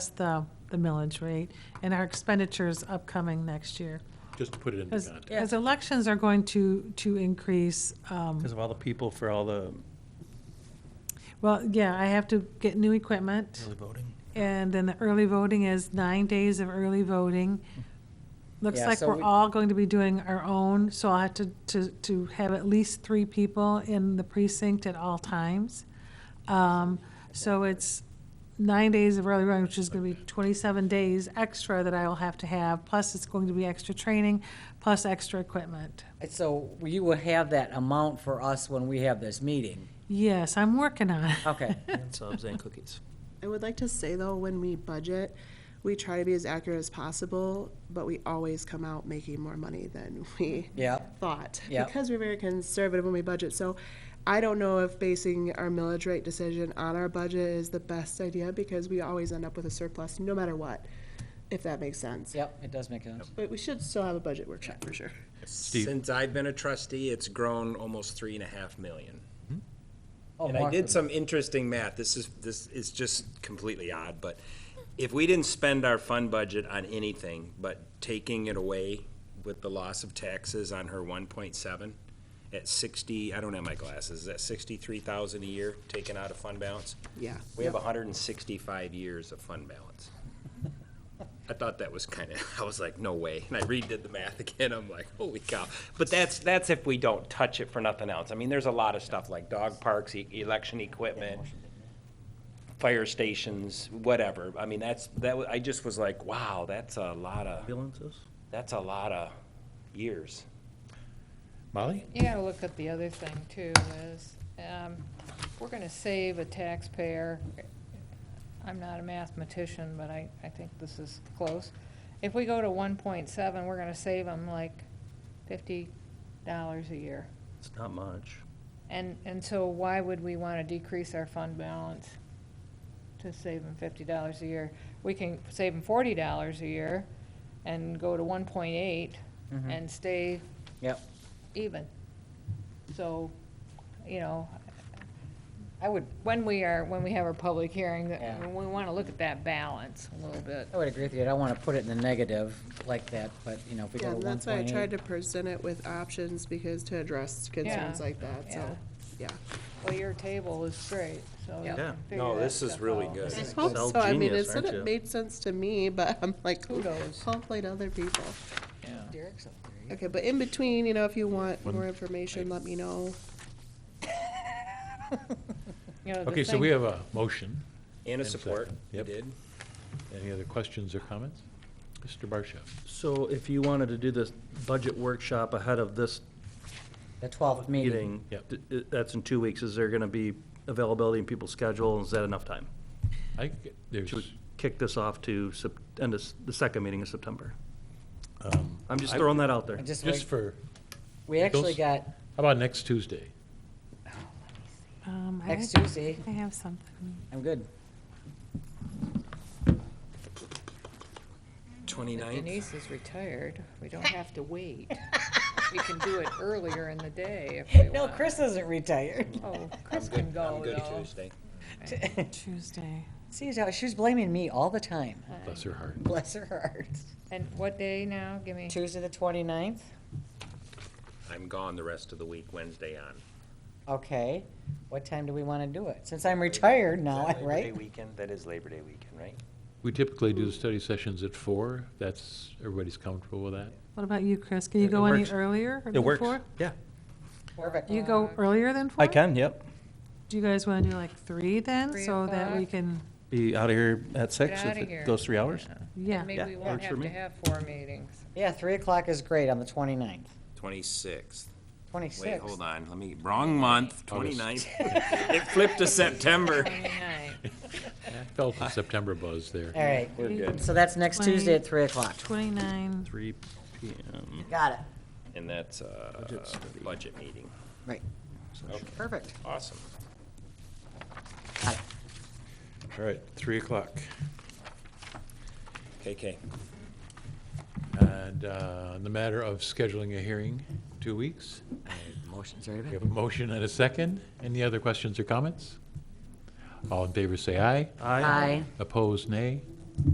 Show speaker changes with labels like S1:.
S1: the, the millage rate and our expenditures upcoming next year.
S2: Just to put it into
S1: As,
S2: context.
S1: as elections are going to, to increase, um,
S3: Because of all the people for all the
S1: well, yeah, I have to get new equipment.
S3: early voting.
S1: And then the early voting is nine days of early voting. Looks
S4: Yeah,
S1: like
S4: so
S1: we're
S4: we-
S1: all going to be doing our own, so I'll have to, to, to have at least three people in the precinct at all times. Um, so it's nine days of early voting, which is gonna be twenty-seven days extra that I will have to have, plus it's going to be extra training, plus extra equipment.
S4: So you will have that amount for us when we have this meeting.
S1: Yes, I'm working on it.
S4: Okay.
S3: And subs and cookies.
S5: I would like to say though, when we budget, we try to be as accurate as possible, but we always come out making more money than we
S4: Yep.
S5: thought.
S4: Yep.
S5: Because we're very conservative when we budget, so I don't know if basing our millage rate decision on our budget is the best idea because we always end up with a surplus no matter what, if that makes sense.
S4: Yep, it does make sense.
S5: But we should still have a budget workshop for sure.
S6: Since I've been a trustee, it's grown almost three and a half million.
S4: Oh,
S6: And I
S4: Mark,
S6: did some interesting math. This is, this is just completely odd, but if we didn't spend our fund budget on anything but taking it away with the loss of taxes on her one point seven at sixty, I don't have my glasses, is that sixty-three thousand a year taken out of fund balance?
S5: Yeah.
S6: We have hundred and sixty-five years of fund balance. I thought that was kind of, I was like, no way. And I redid the math again. I'm like, holy cow. But that's, that's if we don't touch it for nothing else. I mean, there's a lot of stuff like dog parks, e- election equipment, fire stations, whatever. I mean, that's, that, wa- I just was like, wow, that's a lot of,
S3: Ambulances?
S6: that's a lot of years.
S2: Molly?
S7: You gotta look at the other thing too, is, um, we're gonna save a taxpayer, I'm not a mathematician, but I, I think this is close. If we go to one point seven, we're gonna save them like fifty dollars a year.
S3: It's not much.
S7: And, and so why would we wanna decrease our fund balance to save them fifty dollars a year? We can save them forty dollars a year and go to one point eight
S4: Mhm.
S7: and stay
S4: Yep.
S7: even. So, you know, I would, when we are, when we have our public hearing, that-
S4: Yeah.
S7: we want to look at that balance a little bit.
S4: I would agree with you. I don't want to put it in the negative like that, but, you know, if we go
S5: Yeah,
S4: to
S5: and
S4: one
S5: that's why I
S4: point
S5: tried to
S4: eight.
S5: present it with options because to address concerns
S7: Yeah.
S5: like that, so, yeah.
S7: Well, your table is great, so. you
S4: Yeah.
S7: can
S3: Yeah.
S7: figure
S6: No,
S7: that
S6: this is
S7: stuff
S6: really
S7: out.
S6: good.
S5: I
S6: It's
S5: hope so. I mean,
S3: genius,
S5: it's,
S3: aren't
S5: it
S3: you?
S5: made sense to me, but I'm like,
S7: Kudos.
S5: hopefully to other people.
S4: Yeah.
S7: Derek's up there.
S5: Okay, but in between, you know, if you want more information, let me know.
S7: You know, the
S2: Okay, so
S7: thing-
S2: we have a motion.
S6: And
S2: And
S6: a
S2: so-
S6: support, you
S2: yep.
S6: did.
S2: Any other questions or comments? Mr. Barsha?
S3: So if you wanted to do this budget workshop ahead of this
S4: The twelfth meeting.
S3: meeting,
S2: Yep.
S3: th- th- that's in two weeks, is there going to be availability in people's schedule? and Is that enough time?
S2: I, think there's,
S3: Should we kick this off to Sep- end of s- the second meeting of September?
S2: um,
S3: I'm just
S2: I-
S3: throwing that out there.
S4: And just
S2: just
S4: wait.
S2: for,
S4: We actually
S2: those-
S4: got
S2: how about next Tuesday?
S1: Um, I
S4: next
S1: have-
S4: Tuesday.
S1: I have something.
S4: I'm good.
S6: Twenty-ninth,
S7: Denise is retired. We don't have to wait. We can do it earlier in the day if we want.
S4: No, Chris isn't retired.
S7: Oh, Chris can
S6: I'm
S7: go
S6: good
S7: though.
S6: Tuesday.
S1: Tuesday.
S4: See, how she's blaming me all the time.
S2: Bless her heart.
S4: Bless her heart.
S7: And what day now? Give me.
S4: Tuesday, the twenty-ninth.
S6: I'm gone the rest of the week, Wednesday on.
S4: Okay. What time do we want to do it? Since I'm retired now,
S6: Is that Labor Day
S4: right?
S6: weekend, that is Labor Day weekend, right?
S2: We typically do the study sessions at four. That's, everybody's comfortable with that?
S1: What about you, Chris? Can you
S3: It- it
S1: go any
S3: works.
S1: earlier?
S3: It
S1: than
S3: works,
S1: four?
S3: yeah.
S4: Perfect.
S1: You go
S7: Uh,
S1: earlier than four?
S3: I can, yep.
S1: Do you guys want to do like three then,
S7: Three
S1: so that we
S7: o'clock.
S1: can,
S3: Be out of here at six
S7: Get
S3: if
S7: outta here.
S3: it goes three hours.
S7: Yeah.
S1: yeah.
S7: And Maybe we
S3: Yeah,
S7: won't
S3: works for
S7: have to
S3: me.
S7: have four meetings.
S4: Yeah, three o'clock is great on the twenty-ninth.
S6: Twenty-sixth.
S4: Twenty-sixth.
S6: Wait, hold on, let me, wrong month, 29th. It flipped to September.
S7: Twenty-nine.
S2: I felt the September buzz there.
S4: All right,
S6: We're good.
S4: so that's next Tuesday at three o'clock.
S1: Twenty-nine,
S3: Three PM.
S4: Got it.
S6: Um, And that's a budget meeting.
S4: Right.
S6: Okay,
S4: Perfect.
S6: awesome.
S4: Got it.
S2: All right, three o'clock.
S6: KK,
S2: And uh, on the matter of scheduling a hearing, two weeks.
S4: Motion's already
S2: We
S4: been.
S2: have a motion and a second. Any other questions or comments? All in favor, say aye.
S4: Aye.
S2: Opposed, nay.